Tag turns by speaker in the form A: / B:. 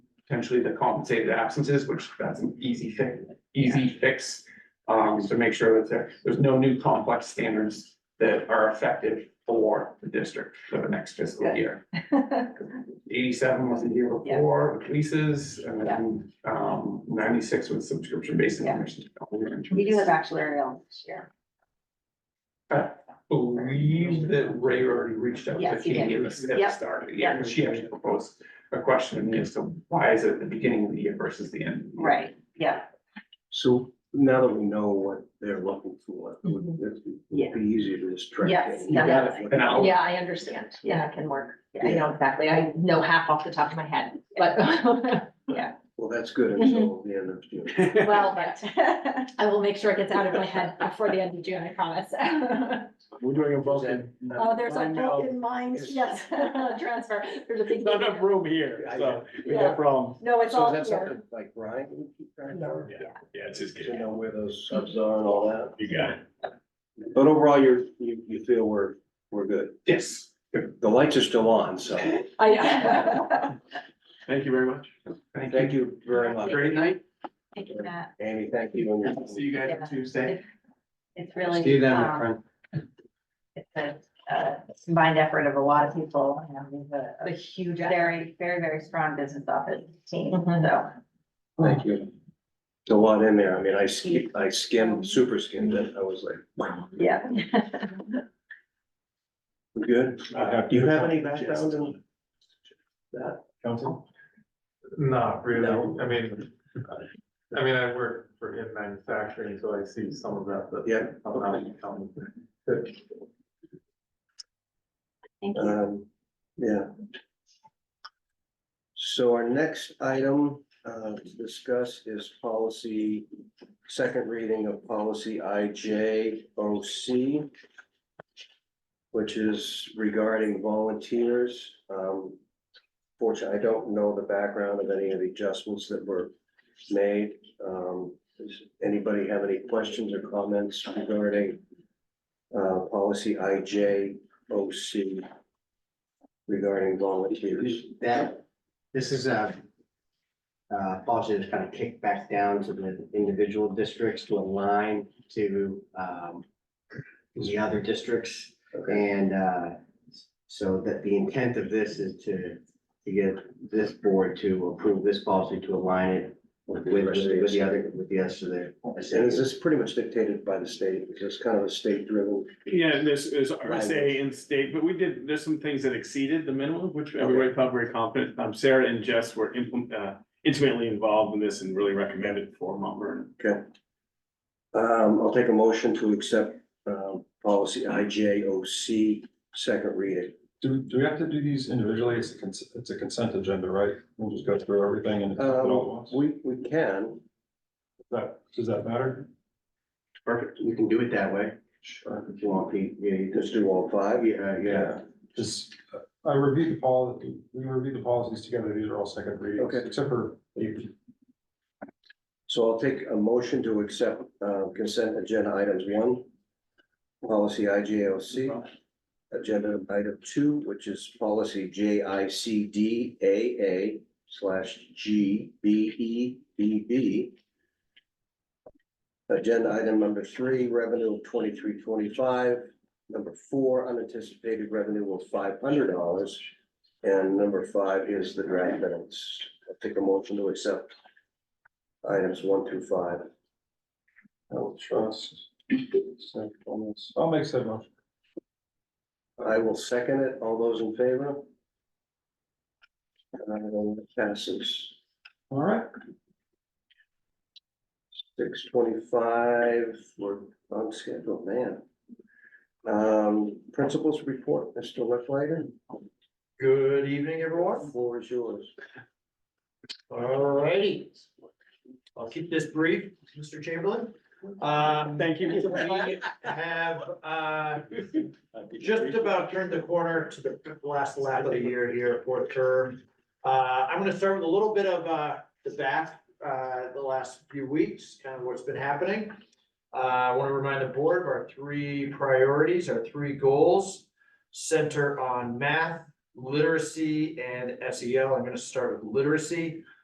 A: potentially to compensate the absences, which that's an easy thing, easy fix. Um, is to make sure that there, there's no new complex standards that are effective for the district for the next fiscal
B: Good.
A: year. Eighty-seven was the year
B: Yeah.
A: before with leases, and then, um, ninety-six was subscription-based
B: Yeah.
A: information.
B: We do have actuarial this year.
A: Believe that Ray already reached out to
B: Yes, he
A: Katie
B: did.
A: at the at the
B: Yep.
A: start of the year, and she actually proposed a question as to why is it the beginning of the year versus the end? of the year?
B: Right, yeah,
C: So now that we know what they're looking for, it would it would be easier to just track.
D: Yes,
C: it.
A: You got it, and I'll-
D: Yeah, I understand. Yeah, it can work. I
C: Yeah.
D: know exactly. I know half off the top of my head, but,
C: Well, that's good
D: Mm-hmm.
C: until the end of June.
D: well, but I will make sure it gets out of my head before the end of June, I promise.
C: We're doing a uh, vote.
D: Oh, there's a
E: now.
D: broken mind,
C: Yes.
D: yes, transfer. There's a big.
E: Not enough room here, so we
D: Yeah.
E: got problems.
D: No, it's
C: So
D: all
C: is that
D: here. Mm-hmm.
C: something like Brian can keep track
D: No,
C: of?
D: yeah.
E: Yeah, it's just
C: To know where those subs are and all that?
E: You got it.
C: But overall, you're, you, you feel we're, we're good.
A: Yes.
C: The lights are still on, so
D: I,
E: Thank you very much.
C: thank you very much.
A: Great night.
B: thank you, Matt.
C: Amy, thank you. and your-
A: See you guys on Tuesday.
B: It's really. um, It's a, uh, combined effort of a lot of people, and we have a-
D: the
B: a
D: huge.
B: very, very, very strong business office team,
D: Mhm.
B: so.
C: Thank you. There's a lot in there. I mean, I skimmed, I skimmed, super skimmed it. I was like, wow,
B: Yeah.
C: we're good. Do you have any background in?
F: Council? Not really,
C: No.
F: I mean, I mean, I work for in manufacturing, so I see some of that, but.
C: Yeah.
F: I'm not I'm-
B: Thank you.
C: Um, yeah. So our next item, uh, to discuss is policy, second reading of policy I J O C. Which is regarding volunteers, um. Fortunately, I don't know the background of any of the adjustments that were made, um, does anybody have any questions or comments regarding? Uh, policy I J O C regarding volunteers.
G: That, this is a. Uh, policy that's kind of kicked back down to the individual districts to align to, um. The other districts
C: Okay,
G: and, uh, so that the intent of this is to. To get this board to approve this policy to align it with, with, with the other, with the rest of the.
C: and is this pretty much dictated by the state? Is this kind of a state driven?
E: Yeah, and this is RSA and state, but we did, there's some things that exceeded the minimum, which everybody felt very confident. Um, Sarah and Jess were implement, uh, intimately involved in this and really recommended for Mount Vernon.
C: Okay. Um, I'll take a motion to accept, um, policy I J O C, second reading.
H: Do, do we have to do these individually? It's a consent, it's a consent agenda, right? We'll just go through everything and. accept it all at
C: Um,
H: once?
C: we, we can,
H: That, does that matter?
E: Perfect.
G: You can do it that way. Sure. If you want, Pete, yeah, you
C: just do all five.
G: can- yeah, yeah.
H: Just, uh, I reviewed the policy, we reviewed the policies together. These are all second readings,
C: Okay.
H: except for eight.
C: So I'll take a motion to accept, uh, consent agenda items one, policy I J O C. Agenda item two, which is policy J I C D A A slash G B E B B. Agenda item number three, revenue of twenty-three twenty-five. Number four, unanticipated revenue of five hundred dollars. And number five is the draft minutes. I'll take a motion to accept items one through five.
H: I will trust. Second, I'll make said motion.
C: I will second it. All those in favor? And it passes
H: All right.
C: six twenty-five. We're on schedule, man. Um, principals report, Mr. Leflager,
E: Good evening, everyone.
C: floor is yours.
E: Alrighty.
I: I'll keep this brief, Mr. Chamberlain. Um,
E: Thank you.
I: we have, uh, just about turned the corner to the last lap of the year here, fourth term. Uh, I'm gonna start with a little bit of, uh, the back, uh, the last few weeks, kind of what's been happening. Uh, I wanna remind the board of our three priorities, our three goals. E Center on math, literacy, and SEL. I'm gonna start with literacy.